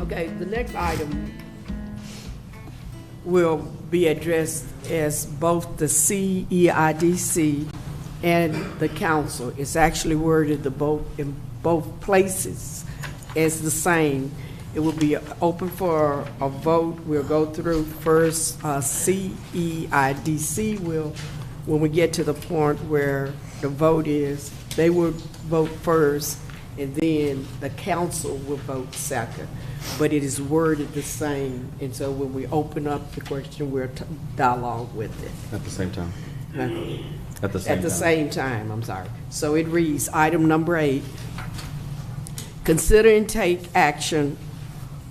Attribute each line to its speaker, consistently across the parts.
Speaker 1: Okay, the next item will be addressed as both the E CEIDC and the council. It's actually worded the both, in both places as the same. It will be open for a vote. We'll go through first, uh, E CEIDC will, when we get to the point where the vote is, they will vote first, and then the council will vote second. But it is worded the same, and so when we open up the question, we'll t- dialogue with it.
Speaker 2: At the same time.
Speaker 1: Huh?
Speaker 2: At the same
Speaker 1: At the
Speaker 2: time.
Speaker 1: same time, I'm sorry. So it reads, item number eight, consider and take action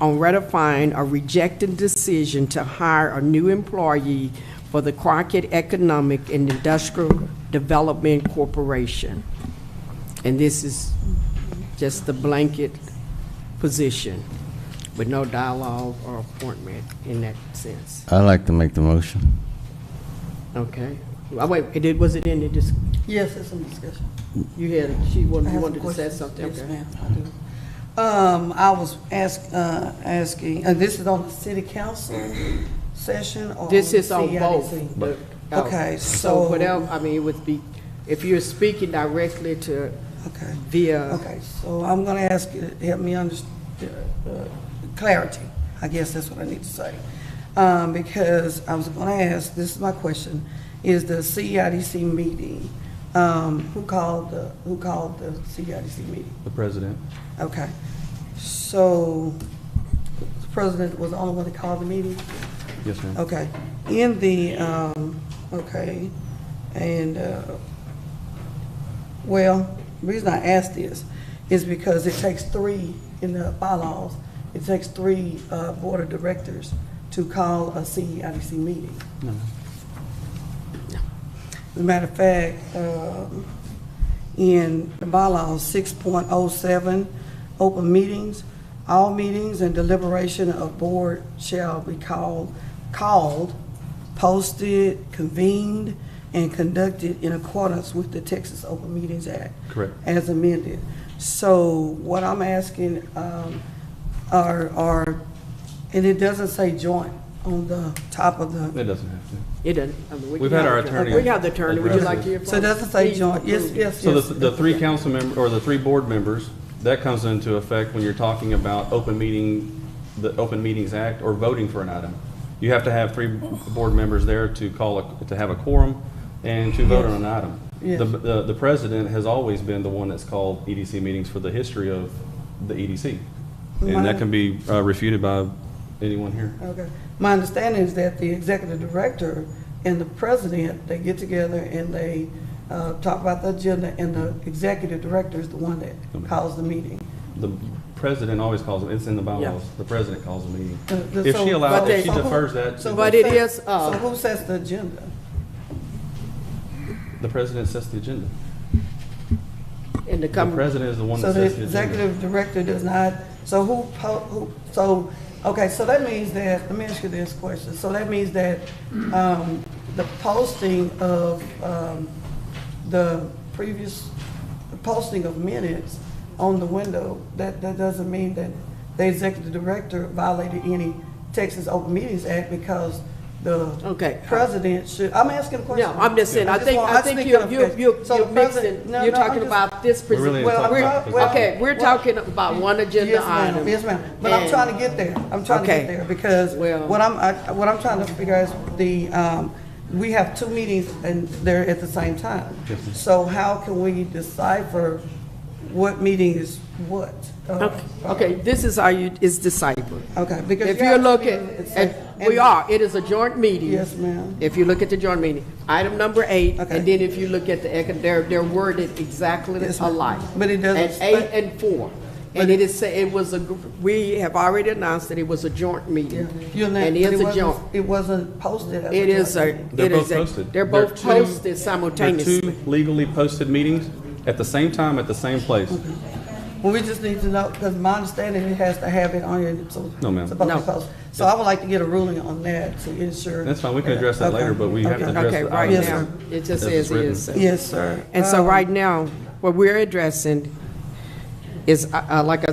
Speaker 1: on ratifying a rejecting decision to hire a new employee for the Crockett Economic and Industrial Development Corporation. And this is just the blanket position with no dialogue or appointment in that sense.
Speaker 3: I'd like to make the motion.
Speaker 1: Okay? Oh, Wait, it did- was it in the dis-
Speaker 4: Yes, it's in discussion.
Speaker 1: You had, she
Speaker 4: I
Speaker 1: wanted, you
Speaker 4: have
Speaker 1: wanted
Speaker 4: some
Speaker 1: to say
Speaker 4: questions.
Speaker 1: something?
Speaker 4: Yes,
Speaker 1: Okay.
Speaker 4: ma'am, I do. Um, I was ask, uh, asking, and this is on the city council session or?
Speaker 1: This is on
Speaker 4: CIDC?
Speaker 1: both. the- oh.
Speaker 4: Okay,
Speaker 1: So
Speaker 4: so-
Speaker 1: whatever, I mean, it would be, if you're speaking directly to
Speaker 4: Okay,
Speaker 1: via,
Speaker 4: okay, so I'm gonna ask you to help me understand, clarity, I guess that's what I need to say. Um, because I was gonna ask, this is my question, is the CIDC meeting, um, who called the, who called the CIDC meeting?
Speaker 2: The president.
Speaker 4: Okay, so the president was the only one that called the meeting?
Speaker 2: Yes, ma'am.
Speaker 4: Okay, in the, um, okay, and, uh, well, the reason I ask this is because it takes three, in the bylaws, it takes three, uh, board of directors to call a E CEIDC meeting.
Speaker 2: No.
Speaker 4: As a matter of fact, um, in the bylaws, six point oh seven, open meetings, all meetings and deliberation of board shall be called, called, posted, convened, and conducted in accordance with the Texas Open Meetings Act.
Speaker 2: Correct.
Speaker 4: As amended. So what I'm asking, um, are, are, and it doesn't say joint on the top of the.
Speaker 2: It doesn't have to.
Speaker 1: it doesn't. I mean, we
Speaker 2: We've
Speaker 1: can
Speaker 2: had
Speaker 1: have
Speaker 2: our
Speaker 1: the-
Speaker 2: attorney
Speaker 1: We have the attorney, would you
Speaker 2: address
Speaker 1: like to
Speaker 2: it.
Speaker 1: hear from?
Speaker 4: So it doesn't say
Speaker 1: Please
Speaker 4: joint, yes,
Speaker 1: approve.
Speaker 4: yes, yes.
Speaker 2: So the, the three council member, or the three board members, that comes into effect when you're talking about open meeting, the Open Meetings Act, or voting for an item. You have to have three board members there to call, a- to have a quorum and to vote on an item.
Speaker 4: Yes.
Speaker 2: The, the the president has always been the one that's called EDC meetings for the history of the EDC. And
Speaker 4: My-
Speaker 2: that can be uh, refuted by anyone here.
Speaker 4: Okay. My understanding is that the executive director and the president, they get together and they uh, talk about the agenda, and the executive director is the one that calls the meeting.
Speaker 2: The president always calls it, it's in the bylaws,
Speaker 1: Yeah.
Speaker 2: the president calls a meeting.
Speaker 4: Uh, the-
Speaker 2: If
Speaker 4: so-
Speaker 2: she allows,
Speaker 1: But
Speaker 2: if she
Speaker 1: they-
Speaker 2: defers that,
Speaker 4: So
Speaker 2: to-
Speaker 1: But
Speaker 4: who
Speaker 1: it
Speaker 4: sets-
Speaker 1: is, uh,
Speaker 4: So who sets the agenda?
Speaker 2: the president sets the agenda.
Speaker 1: In the
Speaker 2: The
Speaker 1: coming,
Speaker 2: president is the one
Speaker 4: So
Speaker 2: that
Speaker 4: the
Speaker 2: sets the agenda.
Speaker 4: executive director does not, so who, po- who, so, okay, so that means that, let me ask you this question. So that means that, um, the posting of, um, the previous, the posting of minutes on the window, that, that doesn't mean that the executive director violated any Texas Open Meetings Act because the
Speaker 1: okay.
Speaker 4: president should, I'm asking a question.
Speaker 1: No, I'm just saying, I think,
Speaker 4: want-
Speaker 1: I think
Speaker 4: need
Speaker 1: you're, you're, you're
Speaker 4: clarification. So
Speaker 1: you're
Speaker 4: the
Speaker 1: mixing,
Speaker 4: president- no,
Speaker 1: you're
Speaker 4: no, I'm
Speaker 1: talking
Speaker 4: just-
Speaker 1: about this.
Speaker 2: We're really
Speaker 1: particular-
Speaker 2: talking
Speaker 4: about
Speaker 1: we're- Okay,
Speaker 4: this.
Speaker 1: we're talking about one agenda
Speaker 4: Yes, ma'am.
Speaker 1: item.
Speaker 4: Yes, ma'am, but I'm
Speaker 1: And-
Speaker 4: trying to get there, I'm trying to
Speaker 1: Okay.
Speaker 4: get there, because
Speaker 1: Well-
Speaker 4: what I'm, I- what I'm trying to figure out is the, um, we have two meetings and they're at the same time.
Speaker 2: Yes, ma'am.
Speaker 4: So how can we decipher what meeting is what? Uh,
Speaker 1: Okay, Okay, this is how you, is deciphered.
Speaker 4: Okay, because.
Speaker 1: If
Speaker 4: you
Speaker 1: you're
Speaker 4: have two
Speaker 1: looking,
Speaker 4: meetings, it's
Speaker 1: and
Speaker 4: like-
Speaker 1: we are, it is a joint meeting.
Speaker 4: Yes, ma'am.
Speaker 1: If you look at the joint meeting, item number eight,
Speaker 4: Okay.
Speaker 1: and then if you look at the, econ- they're, they're worded exactly
Speaker 4: Yes, ma'am.
Speaker 1: alike.
Speaker 4: But it doesn't
Speaker 1: And
Speaker 4: spec-
Speaker 1: eight and four. And it is, say- it was a, gr- we have already announced that it was a joint
Speaker 4: Yeah.
Speaker 1: meeting.
Speaker 4: You're not-
Speaker 1: And
Speaker 4: but it
Speaker 1: it's a
Speaker 4: wasn't-
Speaker 1: joint.
Speaker 4: It wasn't posted as a.
Speaker 1: It is a,
Speaker 4: joint
Speaker 1: it
Speaker 4: meeting.
Speaker 1: is a.
Speaker 2: They're both posted.
Speaker 1: They're
Speaker 2: They're
Speaker 1: both
Speaker 2: two-
Speaker 1: posted
Speaker 2: There are two
Speaker 1: simultaneously.
Speaker 2: legally posted meetings at the same time, at the same place.
Speaker 4: Well, we just need to know, because my understanding, it has to have it on your, so.
Speaker 2: No, ma'am.
Speaker 4: it's supposed to
Speaker 1: No.
Speaker 4: be posted. So I would like to get a ruling on that to ensure.
Speaker 2: That's fine, we can address that later,
Speaker 4: Okay.
Speaker 2: but we have to
Speaker 4: Okay.
Speaker 2: address
Speaker 1: Okay,
Speaker 2: the
Speaker 1: right
Speaker 4: Yes, Um,
Speaker 1: now,
Speaker 2: item.
Speaker 4: sir.
Speaker 1: it just
Speaker 2: As
Speaker 1: says
Speaker 2: it's
Speaker 1: it is.
Speaker 4: Yes, sir.
Speaker 1: And so right now, what we're addressing is, uh, uh, like I